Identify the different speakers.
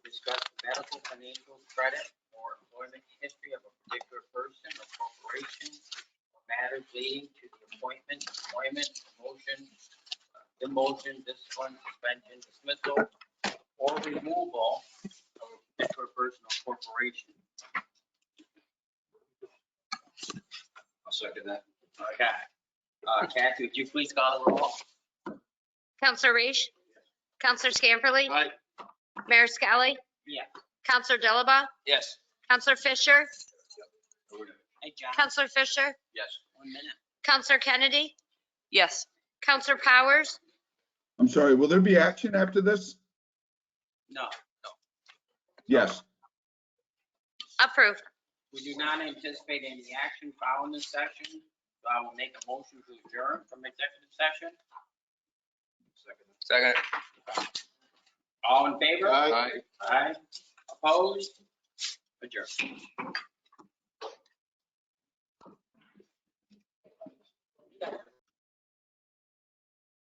Speaker 1: discuss the medical, financial, credit, or employment history of a particular person or corporation, or matters leading to the appointment, employment, promotion, uh, demotion, discipline, suspension, dismissal, or removal of a particular person or corporation. I'll second that. Okay. Uh, Kathy, would you please call the roll?
Speaker 2: Counselor Reish? Counselor Scamperly?
Speaker 1: Aye.
Speaker 2: Mayor Skelly?
Speaker 1: Yeah.
Speaker 2: Counselor Dilaba?
Speaker 1: Yes.
Speaker 2: Counselor Fisher?
Speaker 1: Hey, John.
Speaker 2: Counselor Fisher?
Speaker 1: Yes. One minute.
Speaker 2: Counselor Kennedy?
Speaker 3: Yes.
Speaker 2: Counselor Powers?
Speaker 4: I'm sorry, will there be action after this?
Speaker 1: No,
Speaker 4: Yes,
Speaker 2: Approved.
Speaker 1: we do not anticipate any action following this session. So I will make a motion to adjourn from executive session.
Speaker 5: Second.
Speaker 1: All in favor?
Speaker 5: Aye.
Speaker 1: Aye. Opposed? Adjourn.